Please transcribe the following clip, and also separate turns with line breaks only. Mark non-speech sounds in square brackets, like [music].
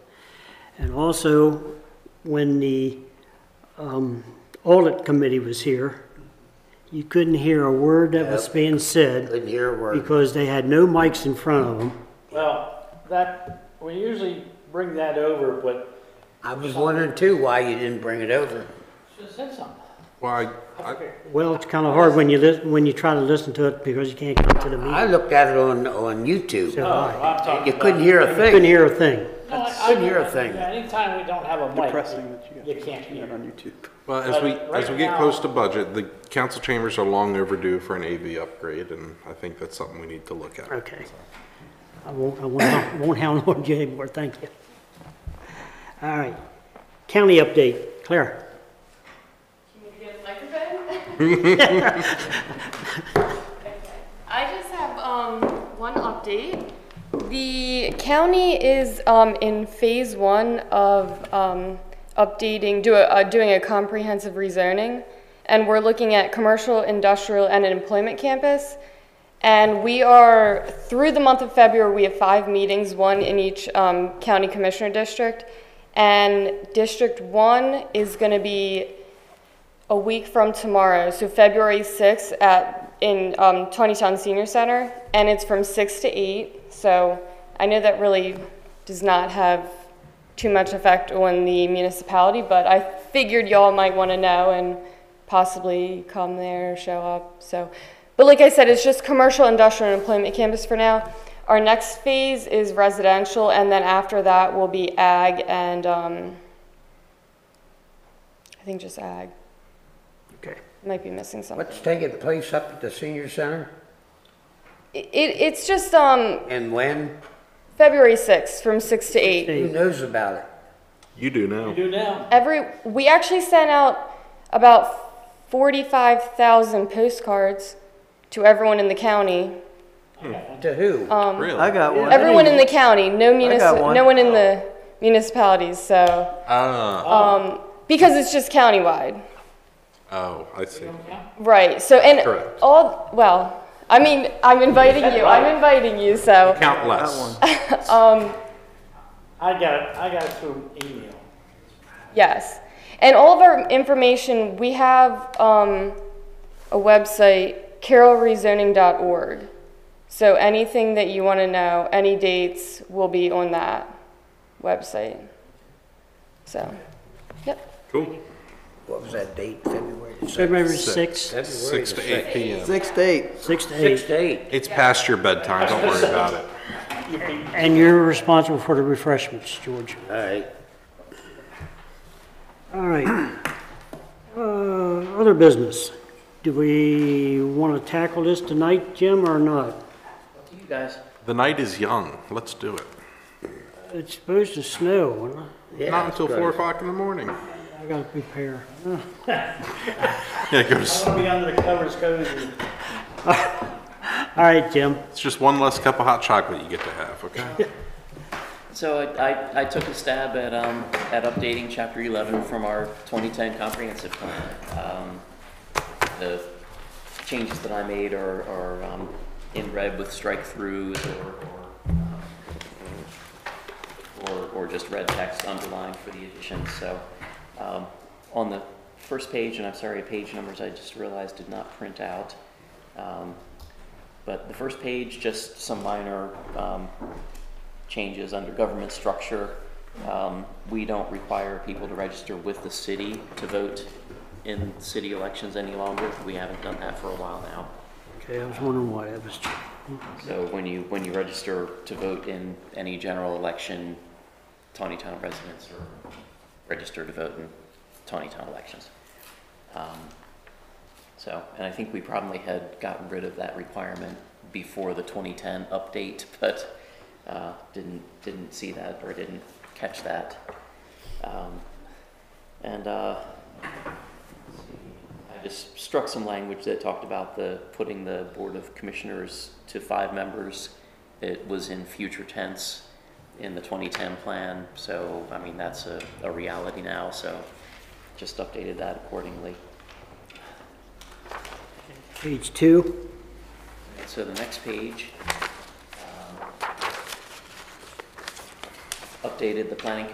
And also, when the um, audit committee was here, you couldn't hear a word that was
Yep.
being said
Couldn't hear a word.
because they had no mics in front of them.
Well, that, we usually bring that over, but
I was wondering too why you didn't bring it over.
should have said something.
Well, I, I,
Okay.
Well, it's kind of hard when you, lis- when you try to listen to it because you can't come to the
I
meeting.
looked at it on, on YouTube.
So
Oh,
I
I'm talking
You
about-
couldn't hear a
couldn't
thing.
hear a thing.
No, I- I
couldn't hear a
mean,
thing.
Anytime we don't have a mic,
Depressing that you
you
guys
can't hear.
on YouTube.
well, as we,
But
as we
right
get
now-
close to budget, the council chambers are long overdue for an AV upgrade, and I think that's something we need to look at.
Okay. I won't, I won't, I won't hound [laughs] on you anymore, thank you. All right. County update, Claire.
Can you get a microphone? Okay. I just have um, one update. The county is um, in phase one of um, updating, do a, uh, doing a comprehensive rezoning, and we're looking at commercial, industrial, and an employment campus. And we are, through the month of February, we have five meetings, one in each um, county commissioner district. And District One is going to be a week from tomorrow, so February 6th at, in um, Tonytown Senior Center, and it's from 6 to 8. So I know that really does not have too much effect on the municipality, but I figured y'all might want to know and possibly come there, show up. So, but like I said, it's just commercial, industrial, and employment campus for now. Our next phase is residential, and then after that will be ag and um, I think just ag.
Okay.
Might be missing something.
What's taking place up at the senior center
It, it's just um
and when?
February 6th from 6 to 8.
Who knows about it?
You do now.
You do now.
Every we actually sent out about 45,000 postcards to everyone in the county.
To who?
Um,
Really?
got one.
Everyone in the county, no
got
municipal,
one.
no one in the municipalities, so
Ah,
because it's just countywide.
oh, I see.
Right. So and
Correct.
all well, I mean, I'm inviting you. I'm inviting you, so
Count less.
I got it, I got it through email.
Yes. And all of our information, we have um, a website, carolrezoning.org. So anything that you want to know, any dates will be on that website. So, yep.
Cool.
What was that date, February? the sixth?
February 6th,
February
Six
the
to eight PM.
Six to eight.
6 to 8.
Six to eight.
It's past your bedtime, don't worry about it.
You can-
And you're responsible for the refreshments, George.
All right.
All right. Uh, Other business. Do we want to tackle this tonight, Jim, or not?
You guys.
The night is young. Let's do it.
It's supposed to snow, and
Yeah,
Not until
it's
four
good.
o'clock in the morning.
I got to prepare.
Yeah, go to s-
I'll be under the covers cozy.
All right, Jim.
It's just one less cup of hot chocolate you get to have, okay?
So I, I- I took a stab at, um, at updating chapter eleven from our twenty-ten comprehensive plan. Um, The changes that I made are, are, um, in red with strike throughs or, or, um, or, or just red text underlined for the additions, so, um, on the first page, and I'm sorry, page numbers I just realized did not print out. Um, But the first page, just some minor, um, changes under government structure. Um, We don't require people to register with the city to vote in city elections any longer. We haven't done that for a while now.
Okay, I was wondering why that was.
So when you, when you register to vote in any general election, Tawnytown residents are registered to vote in Tawnytown elections. Um, So, and I think we probably had gotten rid of that requirement before the 2010 update, [laughs] but uh, didn't, didn't see that or didn't catch that. Um, And uh, I just struck some language that talked about the, putting the Board of Commissioners to five members. It was in future tense in the 2010 plan, so, I mean, that's a, a reality now, so just updated that accordingly.
Page two.
And So the next page, um, updated the planning